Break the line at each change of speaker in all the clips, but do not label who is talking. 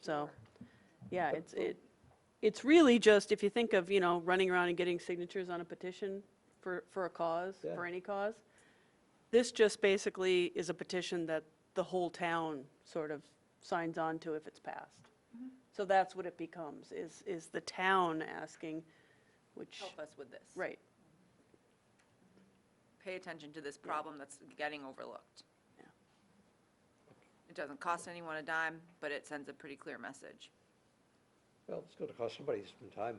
So, yeah, it's, it, it's really just, if you think of, you know, running around and getting signatures on a petition for, for a cause,
Yeah.
for any cause, this just basically is a petition that the whole town sort of signs on to if it's passed.
Mm-hmm.
So that's what it becomes, is, is the town asking, which,
help us with this.
right,
Pay attention to this problem that's getting overlooked. It doesn't cost anyone a dime, but it sends a pretty clear message.
Well, it's gonna cost somebody some time.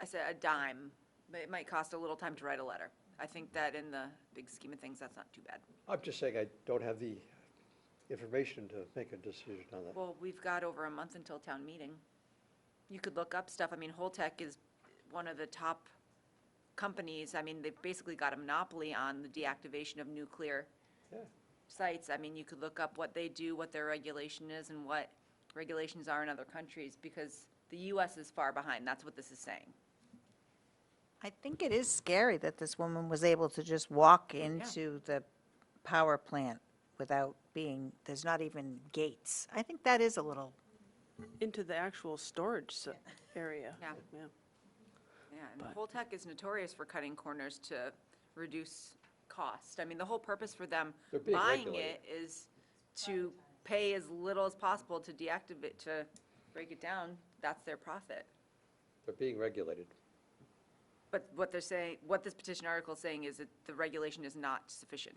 I said a dime, but it might cost a little time to write a letter. I think that in the big scheme of things, that's not too bad.
I'm just saying I don't have the information to make a decision on that.
Well, we've got over a month until town meeting. You could look up stuff. I mean, Holtec is one of the top companies. I mean, they've basically got a monopoly on the deactivation of nuclear
Yeah,
sites. I mean, you could look up what they do, what their regulation is, and what regulations are in other countries, because the US is far behind. That's what this is saying.
I think it is scary that this woman was able to just walk into the power plant without being, there's not even gates. I think that is a little,
into the actual storage s- area.
Yeah.
Yeah.
Yeah, and Holtec is notorious for cutting corners to reduce cost. I mean, the whole purpose for them
They're being
buying
regulated.
it is to pay as little as possible to deactivate, to break it down. That's their profit.
they're being regulated.
But what they're saying, what this petition article is saying is that the regulation is not sufficient.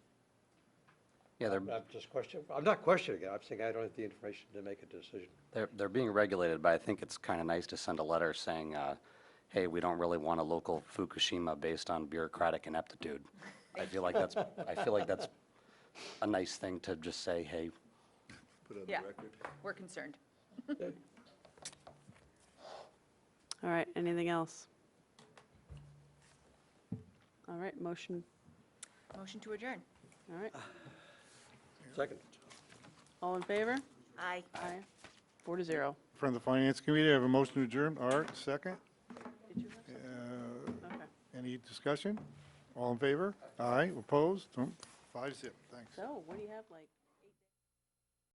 Yeah, they're,
I'm I'm just questioning, I'm not questioning it, I'm saying I don't have the information to make a decision.
they're, they're being regulated, but I think it's kind of nice to send a letter saying, uh, hey, we don't really want a local Fukushima based on bureaucratic ineptitude. I feel like that's, I feel like that's a nice thing to just say, hey,
Put it on
Yeah.
the record.
We're concerned.
All right, anything else? All right, motion,
Motion to adjourn.
all right,
Second,
all in favor?
Aye.
Aye. Four to zero.
From the Finance Committee, I have a motion to adjourn. Art, second. Uh,
Okay,
Any discussion? All in favor? Aye, opposed? Hmm, Five zip, thanks.
so what do you have, like?